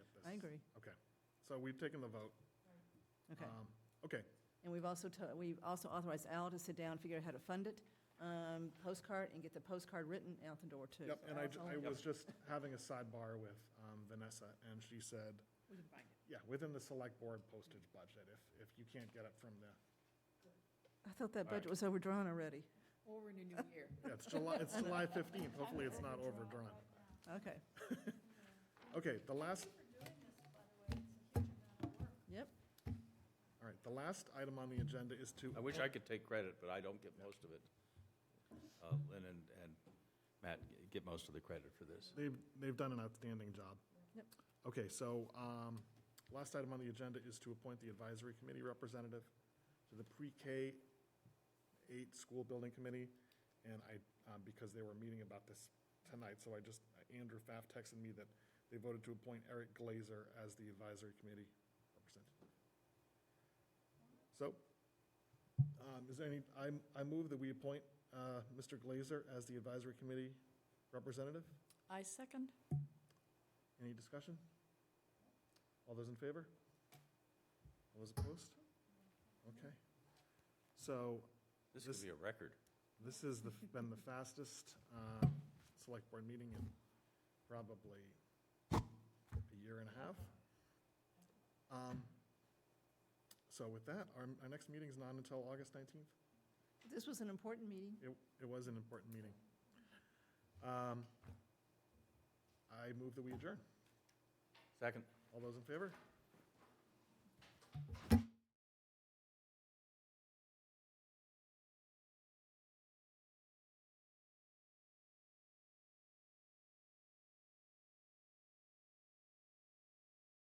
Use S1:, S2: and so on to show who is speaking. S1: agree.
S2: Okay, so we've taken the vote.
S1: Okay.
S2: Um, Okay,
S1: And we've also, to- we've also authorized Al to sit down, figure out how to fund it, um, postcard, and get the postcard written out the door, too.
S2: yep,
S1: So
S2: and I,
S1: Al's
S2: j-
S1: on-
S2: I was just having a sidebar with um, Vanessa, and she said,
S1: We can find it.
S2: yeah, within the select board postage budget, if, if you can't get it from the,
S1: I thought
S2: All
S1: that
S2: right.
S1: budget was overdrawn already.
S3: Or in a new year.
S2: yeah, it's July, it's July 15th, hopefully it's not overdrawn.
S1: Okay,
S2: Okay, the last,
S4: Thank you for doing this, by the way, it's a huge amount of work.
S1: yep.
S2: all right, the last item on the agenda is to.
S5: I wish I could take credit, but I don't get most of it. Uh, Lynn and, and Matt get most of the credit for this.
S2: They've, they've done an outstanding job.
S1: Yep.
S2: Okay, so, um, last item on the agenda is to appoint the advisory committee representative to the pre-K eight school building committee. And I, um, because they were meeting about this tonight, so I just, Andrew Pfaff texted me that they voted to appoint Eric Glazer as the advisory committee representative. So, um, is there any, I, I move that we appoint, uh, Mr. Glazer as the advisory committee representative?
S3: I second.
S2: Any discussion? All those in favor? All those opposed? Okay. So
S5: This could be a record.
S2: this has the- been the fastest um, Select Board meeting in probably a year and a half. Um, So with that, our, our next meeting's not until August 19th.
S1: This was an important meeting.
S2: It, it was an important meeting. Um, I move that we adjourn.
S5: Second?
S2: All those in favor?